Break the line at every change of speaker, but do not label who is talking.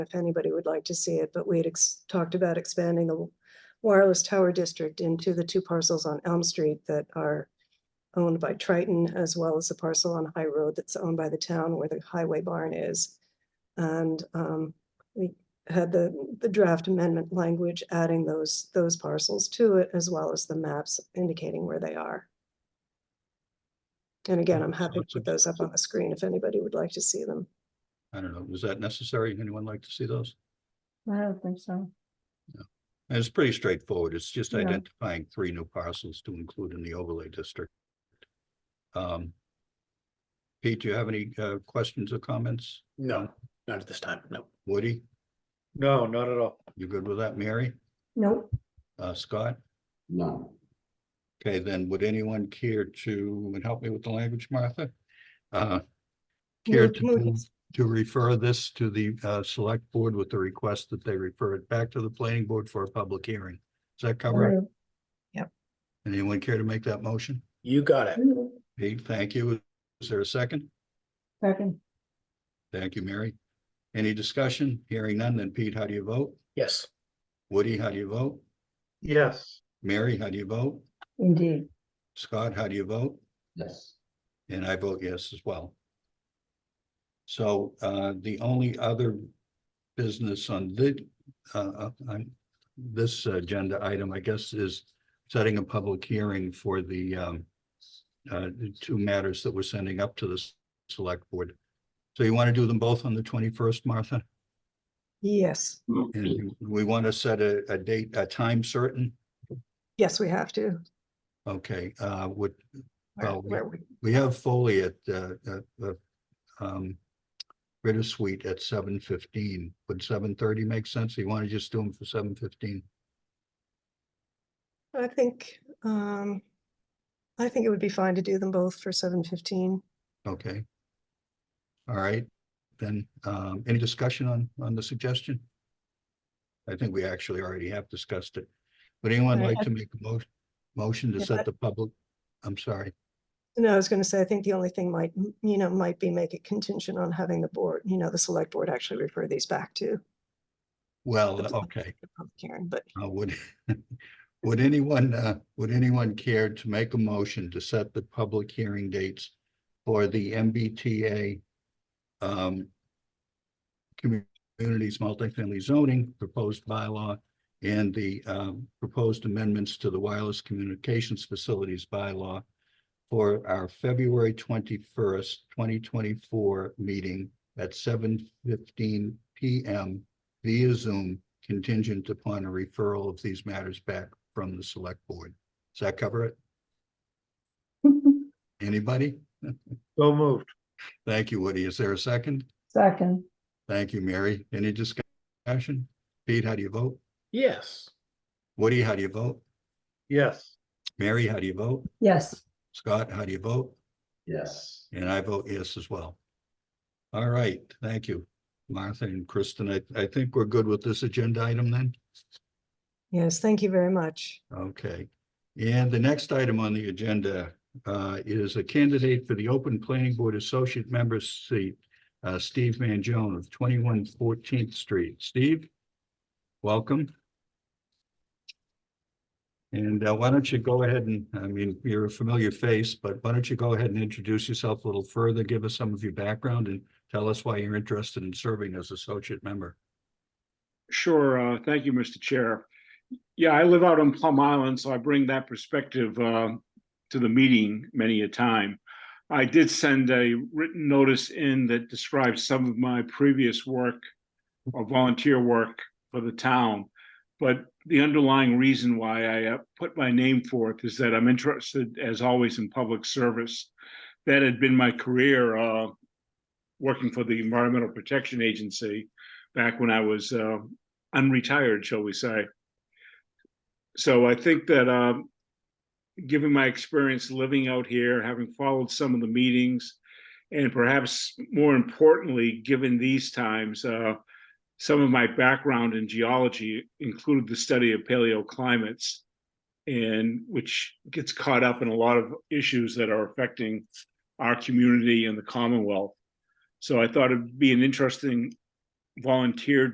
if anybody would like to see it, but we had ex- talked about expanding the wireless tower district into the two parcels on Elm Street that are owned by Triton, as well as the parcel on High Road that's owned by the town where the highway barn is. And um, we had the, the draft amendment language adding those, those parcels to it, as well as the maps indicating where they are. And again, I'm happy to put those up on the screen if anybody would like to see them.
I don't know, was that necessary? Anyone like to see those?
I don't think so.
And It's pretty straightforward. It's just
Yeah.
identifying three new parcels to include in the overlay district. Um. Pete, do you have any uh questions or comments?
No, not at this time, no.
Woody,
No, not at all.
you good with that? Mary,
Nope.
uh, Scott?
No.
Okay, then would anyone care to, and help me with the language, Martha? Uh, Care
Move-
to
move-
move to refer this to the uh select board with the request that they refer it back to the planning board for a public hearing. Does that cover it? Anyone care to make that motion?
You got it.
Pete, thank you. Is there a second?
Second,
Thank you, Mary. Any discussion? Hearing none, then Pete, how do you vote?
Yes,
Woody, how do you vote?
Yes,
Mary, how do you vote?
indeed.
Scott, how do you vote?
Yes,
And I vote yes as well. So uh, the only other business on the, uh, uh, on this agenda item, I guess, is setting a public hearing for the um, uh, the two matters that we're sending up to the s- select board. So you want to do them both on the twenty-first, Martha?
Yes,
And we want to set a, a date, a time certain?
yes, we have to.
Okay, uh, would,
Where-
Well, we-
where we-
We have Foley at, uh, at the, um, Ritter Suite at seven fifteen. Would seven thirty make sense? You want to just do them for seven fifteen?
I think, um, I think it would be fine to do them both for seven fifteen.
Okay. All right, then, um, any discussion on, on the suggestion? I think we actually already have discussed it. Would anyone
Right,
like to make a motion, motion to
Yeah, I-
set the public? I'm sorry,
No, I was gonna say, I think the only thing might, m- you know, might be make it contingent on having the board, you know, the select board actually refer these back to
well,
That's-
Oh, okay.
the public hearing, but
Uh, would, would anyone, uh, would anyone care to make a motion to set the public hearing dates for the MBTA um, communities multifamily zoning proposed bylaw and the um, proposed amendments to the wireless communications facilities bylaw for our February twenty-first, twenty twenty-four meeting at seven fifteen PM via Zoom contingent upon a referral of these matters back from the select board. Does that cover it? Anybody?
so moved.
Thank you, Woody. Is there a second?
Second,
Thank you, Mary. Any discussion? Pete, how do you vote?
yes,
Woody, how do you vote?
Yes,
Mary, how do you vote?
yes,
Scott, how do you vote?
yes.
And I vote yes as well. All right, thank you, Martha and Kristen. I, I think we're good with this agenda item then?
yes, thank you very much.
Okay, and the next item on the agenda uh is a candidate for the open planning board associate member seat. Uh Steve Mangione of twenty-one Fourteenth Street. Steve, welcome. And uh, why don't you go ahead and, I mean, you're a familiar face, but why don't you go ahead and introduce yourself a little further, give us some of your background and tell us why you're interested in serving as associate member.
Sure. uh, Thank you, Mr. Chair. Yeah, I live out on Plum Island, so I bring that perspective uh, to the meeting many a time. I did send a written notice in that describes some of my previous work or volunteer work for the town. But the underlying reason why I uh, put my name forth is that I'm interested, as always, in public service. That had been my career, uh, working for the Environmental Protection Agency back when I was uh, unretired, shall we say. So I think that, um, given my experience living out here, having followed some of the meetings, and perhaps more importantly, given these times, uh, some of my background in geology included the study of paleoclimates, and which gets caught up in a lot of issues that are affecting our community and the Commonwealth. So I thought it'd be an interesting volunteer